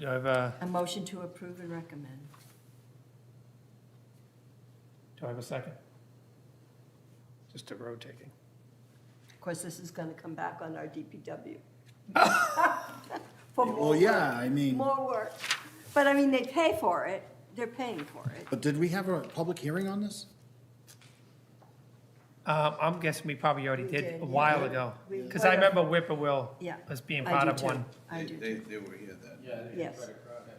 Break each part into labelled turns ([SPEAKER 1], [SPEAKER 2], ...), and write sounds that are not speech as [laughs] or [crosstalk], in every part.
[SPEAKER 1] Do I have a,
[SPEAKER 2] A motion to approve and recommend.
[SPEAKER 1] do I have a second? Just a rotating.
[SPEAKER 2] Of course, this is going to come back on our
[SPEAKER 3] [laughs]
[SPEAKER 2] DPW. For more
[SPEAKER 3] Well, yeah,
[SPEAKER 2] work,
[SPEAKER 3] I mean,
[SPEAKER 2] More work. But I mean, they pay for it. They're paying for it.
[SPEAKER 3] but did we have a public hearing on this?
[SPEAKER 1] Um, I'm guessing we probably already
[SPEAKER 2] We
[SPEAKER 1] did
[SPEAKER 2] did,
[SPEAKER 1] a while
[SPEAKER 2] yeah.
[SPEAKER 1] ago,
[SPEAKER 2] We-
[SPEAKER 1] because I remember Whippoorwill
[SPEAKER 2] Yeah.
[SPEAKER 1] as being
[SPEAKER 2] I
[SPEAKER 1] part
[SPEAKER 2] do
[SPEAKER 1] of
[SPEAKER 2] too.
[SPEAKER 1] one.
[SPEAKER 2] I
[SPEAKER 4] They,
[SPEAKER 2] do
[SPEAKER 4] they
[SPEAKER 2] too.
[SPEAKER 4] they were here then.
[SPEAKER 2] Yes.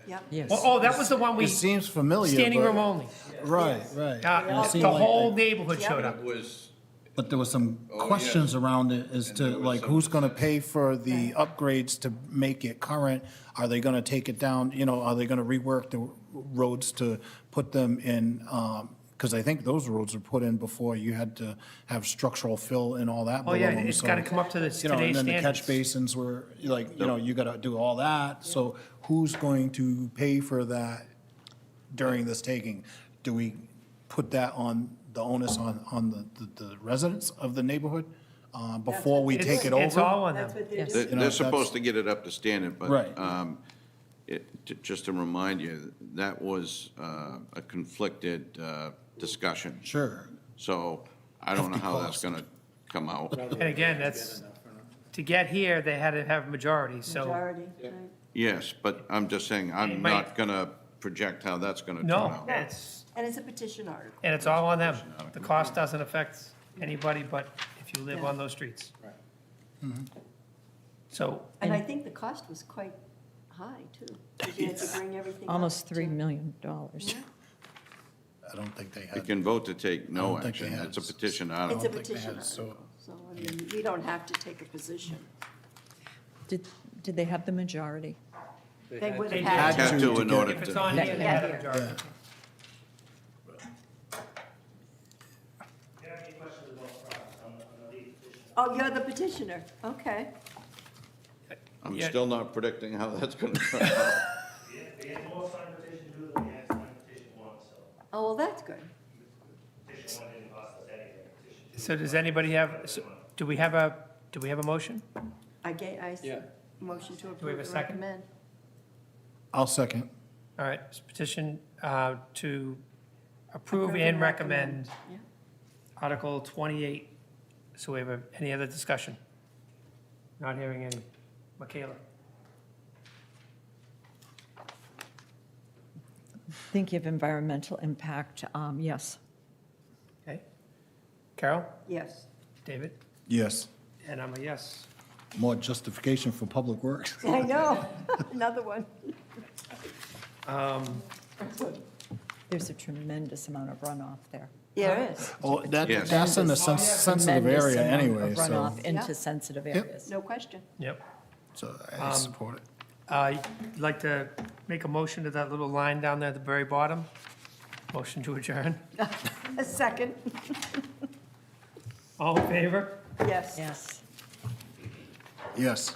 [SPEAKER 2] Yep.
[SPEAKER 5] Yes.
[SPEAKER 1] Oh, oh, that was the one we,
[SPEAKER 3] It seems familiar.
[SPEAKER 1] standing
[SPEAKER 3] but-
[SPEAKER 1] room only.
[SPEAKER 3] Right, right. And
[SPEAKER 1] Uh,
[SPEAKER 3] it seemed
[SPEAKER 1] The
[SPEAKER 3] like-
[SPEAKER 1] whole neighborhood showed
[SPEAKER 2] Yeah.
[SPEAKER 1] up.
[SPEAKER 4] It was,
[SPEAKER 3] But there was some
[SPEAKER 4] Oh, yeah.
[SPEAKER 3] questions around it as
[SPEAKER 4] And
[SPEAKER 3] to,
[SPEAKER 4] there was
[SPEAKER 3] like,
[SPEAKER 4] some
[SPEAKER 3] who's gonna pay for the upgrades to make it current? Are they gonna take it down, you know, are they gonna rework the roads to put them in, um 'cause because I think those roads were put in before you had to have structural fill and all that
[SPEAKER 1] Oh,
[SPEAKER 3] below
[SPEAKER 1] yeah,
[SPEAKER 3] them,
[SPEAKER 1] it's
[SPEAKER 3] so.
[SPEAKER 1] got to come up to the today's
[SPEAKER 3] You know, and
[SPEAKER 1] standards.
[SPEAKER 3] then the catch basins were, like, you know, you gotta do all that, so who's going to pay for that during this taking? Do we put that on, the onus on, on the, the- the residents of the neighborhood, uh, before we
[SPEAKER 1] It's-
[SPEAKER 3] take it
[SPEAKER 1] It's
[SPEAKER 3] over?
[SPEAKER 1] all on them.
[SPEAKER 2] That's what they're
[SPEAKER 5] Yes.
[SPEAKER 2] doing.
[SPEAKER 4] they're,
[SPEAKER 3] You know,
[SPEAKER 4] they're
[SPEAKER 3] that's-
[SPEAKER 4] supposed to get it up to standard, but.
[SPEAKER 3] Right.
[SPEAKER 4] um, It, ju- just to remind you, that was uh, a conflicted uh, discussion.
[SPEAKER 3] Sure,
[SPEAKER 4] So I don't know
[SPEAKER 3] Hefty
[SPEAKER 4] how that's
[SPEAKER 3] cost.
[SPEAKER 4] gonna come out.
[SPEAKER 1] And again, that's, to get here, they had to have majority, so,
[SPEAKER 2] Majority, right.
[SPEAKER 4] Yes, but I'm just saying,
[SPEAKER 1] It
[SPEAKER 4] I'm
[SPEAKER 1] might-
[SPEAKER 4] not gonna project how that's gonna turn
[SPEAKER 1] no,
[SPEAKER 4] out.
[SPEAKER 1] it's,
[SPEAKER 2] And it's a petition article.
[SPEAKER 1] and it's all on them. The cost doesn't affect anybody but if you live
[SPEAKER 2] Yeah.
[SPEAKER 1] on those streets. So,
[SPEAKER 2] And I think the cost was quite high,
[SPEAKER 3] [laughs]
[SPEAKER 2] too. 'cause You had to bring everything up
[SPEAKER 5] Almost $3
[SPEAKER 2] to-
[SPEAKER 5] million. dollars.
[SPEAKER 2] Yeah.
[SPEAKER 3] I don't think they
[SPEAKER 4] They
[SPEAKER 3] had,
[SPEAKER 4] can vote to take no
[SPEAKER 3] I don't think they
[SPEAKER 4] action.
[SPEAKER 3] had-
[SPEAKER 4] It's a petition
[SPEAKER 2] It's
[SPEAKER 4] article.
[SPEAKER 2] a
[SPEAKER 3] think they
[SPEAKER 2] petition
[SPEAKER 3] had, so-
[SPEAKER 2] article, so I mean, we don't have to take a position.
[SPEAKER 5] Did, did they have the majority?
[SPEAKER 2] They would
[SPEAKER 1] They
[SPEAKER 2] have had to.
[SPEAKER 4] Had
[SPEAKER 3] to
[SPEAKER 4] to
[SPEAKER 3] to
[SPEAKER 4] in
[SPEAKER 3] get-
[SPEAKER 4] order
[SPEAKER 1] if it's on
[SPEAKER 4] to.
[SPEAKER 1] here, they had a majority.
[SPEAKER 2] Oh, you're the petitioner, okay.
[SPEAKER 4] I'm
[SPEAKER 1] Yeah.
[SPEAKER 4] still not predicting how that's
[SPEAKER 1] [laughs]
[SPEAKER 4] gonna turn out.
[SPEAKER 6] They had more signed petition two than they had signed petition one, so
[SPEAKER 2] Oh, well, that's good.
[SPEAKER 6] petition one didn't cost us anything. Petition two
[SPEAKER 1] So does anybody have, so do we have a, do we have a motion?
[SPEAKER 2] I gave, I, s- motion to
[SPEAKER 1] we have
[SPEAKER 2] approve
[SPEAKER 1] a
[SPEAKER 2] and
[SPEAKER 1] second?
[SPEAKER 2] recommend.
[SPEAKER 3] I'll second.
[SPEAKER 1] All right, it's petition uh, to approve and recommend
[SPEAKER 2] Yeah.
[SPEAKER 1] Article 28. So we have a- any other discussion? Not hearing any. Michaela?
[SPEAKER 5] Thinking of environmental impact, um, yes.
[SPEAKER 1] Okay. Carol?
[SPEAKER 2] Yes. [laughs]
[SPEAKER 1] David?
[SPEAKER 3] Yes,
[SPEAKER 1] And I'm a yes.
[SPEAKER 3] more justification for public [laughs] works.
[SPEAKER 1] [laughs]
[SPEAKER 2] I know, another one.
[SPEAKER 1] Um,
[SPEAKER 5] There's a tremendous amount of runoff there.
[SPEAKER 2] Yeah, it is,
[SPEAKER 3] Oh, that,
[SPEAKER 4] Yes.
[SPEAKER 3] that's in a sen- sensitive
[SPEAKER 5] Tremendous
[SPEAKER 3] area
[SPEAKER 5] amount of
[SPEAKER 3] anyway, so,
[SPEAKER 5] Runoff
[SPEAKER 2] Yeah.
[SPEAKER 5] into sensitive areas.
[SPEAKER 2] no question.
[SPEAKER 1] Yep.
[SPEAKER 3] so
[SPEAKER 1] Um,
[SPEAKER 3] I support it.
[SPEAKER 1] I'd Uh, like to make a motion to that little line down there at the very bottom. Motion to adjourn.
[SPEAKER 2] A second,
[SPEAKER 1] All in favor?
[SPEAKER 2] yes.
[SPEAKER 5] Yes.
[SPEAKER 3] Yes.